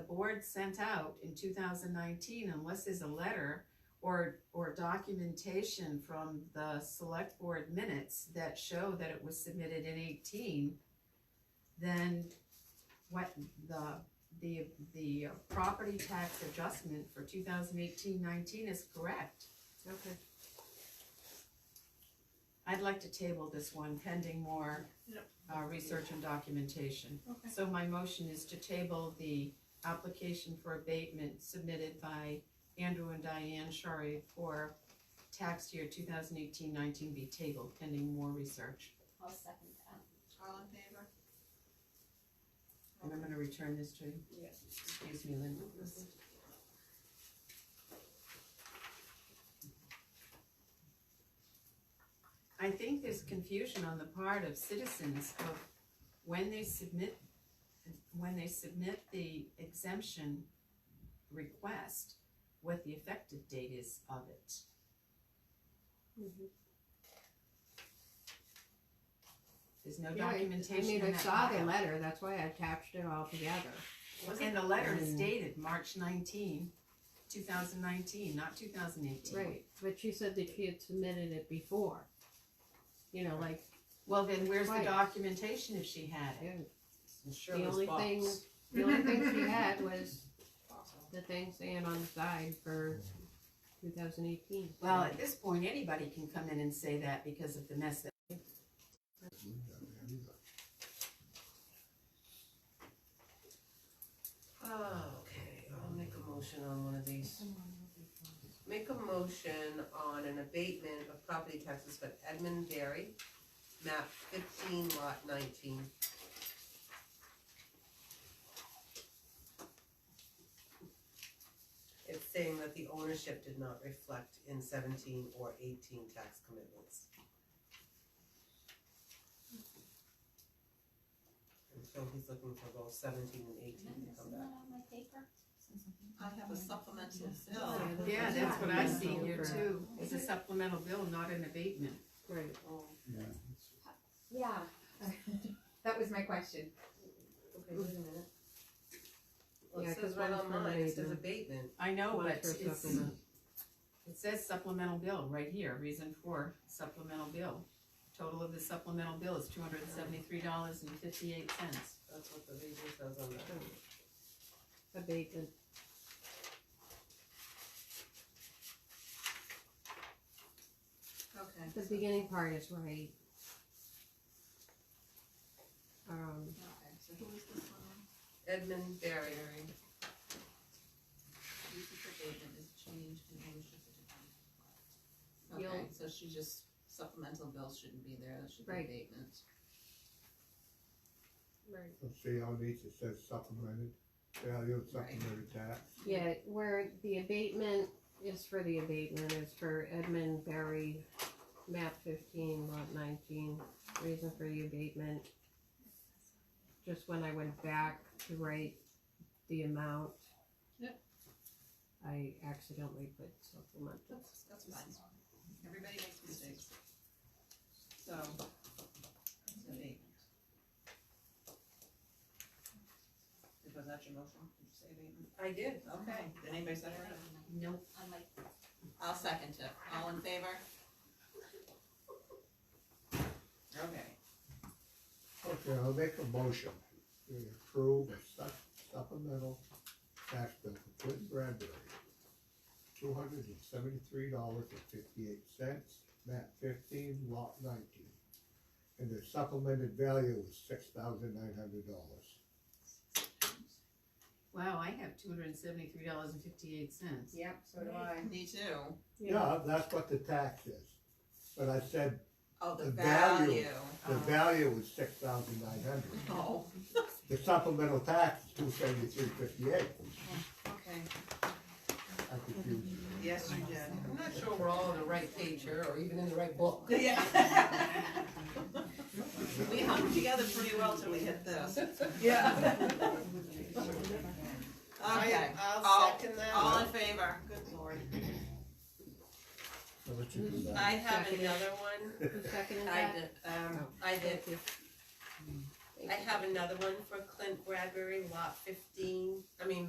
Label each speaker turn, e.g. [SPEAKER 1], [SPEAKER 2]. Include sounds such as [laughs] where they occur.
[SPEAKER 1] board sent out in two thousand nineteen, unless there's a letter or, or documentation from the select board minutes that show that it was submitted in eighteen, then what the, the, the property tax adjustment for 2018-19 is correct.
[SPEAKER 2] Okay.
[SPEAKER 1] I'd like to table this one pending more
[SPEAKER 2] Yep.
[SPEAKER 1] uh, research and documentation.
[SPEAKER 2] Okay.
[SPEAKER 1] So my motion is to table the application for abatement submitted by Andrew and Diane Shari for tax year 2018-19 be tabled pending more research.
[SPEAKER 3] I'll second that.
[SPEAKER 2] All in favor?
[SPEAKER 1] And I'm gonna return this to you.
[SPEAKER 2] Yeah.
[SPEAKER 1] Excuse me, Linda. I think there's confusion on the part of citizens of when they submit, when they submit the exemption request, what the effective date is of it.
[SPEAKER 4] Mm-hmm.
[SPEAKER 1] There's no
[SPEAKER 4] Yeah, I-
[SPEAKER 1] documentation
[SPEAKER 4] I
[SPEAKER 1] in
[SPEAKER 4] mean, I
[SPEAKER 1] that
[SPEAKER 4] saw the
[SPEAKER 1] file.
[SPEAKER 4] letter, that's why I attached it all together.
[SPEAKER 1] And the letter is
[SPEAKER 4] Mm.
[SPEAKER 1] dated March 19, 2019, not two thousand eighteen.
[SPEAKER 4] Right, but she said that she had submitted it before. You know, like,
[SPEAKER 1] Well, then where's the
[SPEAKER 4] Right.
[SPEAKER 1] documentation if she had it?
[SPEAKER 4] yeah,
[SPEAKER 1] I'm sure
[SPEAKER 4] the
[SPEAKER 1] it was
[SPEAKER 4] only
[SPEAKER 1] boxed.
[SPEAKER 4] thing, the only
[SPEAKER 1] [laughs]
[SPEAKER 4] thing she had was the thing saying on the side for two thousand eighteen.
[SPEAKER 1] Well, at this point, anybody can come in and say that because of the mess that.
[SPEAKER 2] Okay, I'll make a motion on one of these. Make a motion on an abatement of property taxes for Edmund Berry, map fifteen lot nineteen. It's saying that the ownership did not reflect in seventeen or eighteen tax commitments. And so he's looking for both seventeen and eighteen
[SPEAKER 3] Isn't
[SPEAKER 2] to
[SPEAKER 3] that
[SPEAKER 2] come back.
[SPEAKER 3] on uh, my paper?
[SPEAKER 5] I have a supplemental
[SPEAKER 4] Yeah,
[SPEAKER 5] bill.
[SPEAKER 4] that's-
[SPEAKER 1] Yeah, that's what I
[SPEAKER 4] that's
[SPEAKER 1] see
[SPEAKER 4] all
[SPEAKER 1] here
[SPEAKER 4] for-
[SPEAKER 1] too. It's a supplemental bill, not an abatement.
[SPEAKER 4] Right,
[SPEAKER 2] Oh,
[SPEAKER 6] Yeah, that was my question.
[SPEAKER 2] okay, wait a minute. Well,
[SPEAKER 4] Yeah,
[SPEAKER 2] it
[SPEAKER 4] 'cause
[SPEAKER 2] says right
[SPEAKER 4] one's
[SPEAKER 2] on
[SPEAKER 4] for
[SPEAKER 2] mine, it says
[SPEAKER 4] abatement.
[SPEAKER 2] abatement.
[SPEAKER 1] I know,
[SPEAKER 4] One's
[SPEAKER 1] but
[SPEAKER 4] for
[SPEAKER 1] it's,
[SPEAKER 4] supplement.
[SPEAKER 1] it says supplemental bill right here, reason for supplemental bill. Total of the supplemental bill is two hundred and seventy-three dollars and fifty-eight cents.
[SPEAKER 2] That's what the reason says on that.
[SPEAKER 4] abatement,
[SPEAKER 5] Okay.
[SPEAKER 4] the beginning part is right. Um,
[SPEAKER 5] Okay, so who is this one?
[SPEAKER 2] Edmund Barry.
[SPEAKER 5] Use of abatement is changed in ownership of the
[SPEAKER 4] You'll-
[SPEAKER 5] town. Okay, so she just, supplemental bills shouldn't be there, that should be
[SPEAKER 4] Right.
[SPEAKER 5] abatement.
[SPEAKER 4] right.
[SPEAKER 7] See how neat it says supplemented, value of supplementary tax.
[SPEAKER 4] Yeah, where the abatement is for the abatement is for Edmund Berry, map fifteen, lot nineteen, reason for the abatement. Just when I went back to write the amount.
[SPEAKER 5] Yep.
[SPEAKER 4] I accidentally put supplemental.
[SPEAKER 5] That's, that's fine. Everybody makes mistakes. So, it's abatement. Was that your motion? Did you say abatement?
[SPEAKER 2] I did.
[SPEAKER 5] Okay, did anybody second it?
[SPEAKER 1] Nope.
[SPEAKER 3] On my
[SPEAKER 5] I'll second it. All in favor? Okay.
[SPEAKER 7] Okay, I'll make a motion to approve a sup- supplemental tax bill for Quentin Bradbury. Two hundred and seventy-three dollars and fifty-eight cents, map fifteen, lot nineteen. And the supplemented value is six thousand nine hundred dollars.
[SPEAKER 1] Wow, I have two hundred and seventy-three dollars and fifty-eight cents.
[SPEAKER 6] Yep, so do I.
[SPEAKER 5] Me too.
[SPEAKER 7] Yeah, that's what the tax is, but I said
[SPEAKER 5] Oh, the
[SPEAKER 7] The value.
[SPEAKER 5] value.
[SPEAKER 7] the
[SPEAKER 5] Oh.
[SPEAKER 7] value was six thousand nine hundred.
[SPEAKER 5] [laughs] Oh,
[SPEAKER 7] The supplemental tax is two seventy-three fifty-eight,
[SPEAKER 5] okay.
[SPEAKER 7] I confused you.
[SPEAKER 5] Yes, you did.
[SPEAKER 2] I'm not sure we're all on the right page here, or even in the right [laughs] book.
[SPEAKER 5] [laughs] Yeah. [laughs] We hung together pretty well till we hit this.
[SPEAKER 2] Yeah.
[SPEAKER 5] [laughs] Okay.
[SPEAKER 2] I'll
[SPEAKER 5] All-
[SPEAKER 2] second
[SPEAKER 5] All in
[SPEAKER 2] that.
[SPEAKER 5] favor? Good lord.
[SPEAKER 7] I'll let you do that.
[SPEAKER 2] I have
[SPEAKER 4] Second.
[SPEAKER 2] another one.
[SPEAKER 7] [laughs]
[SPEAKER 4] Who seconded
[SPEAKER 2] I
[SPEAKER 4] that?
[SPEAKER 2] did, um,
[SPEAKER 4] Oh.
[SPEAKER 2] I did,
[SPEAKER 4] Thank you.
[SPEAKER 2] I have another one for Clint Bradbury, lot fifteen, I mean,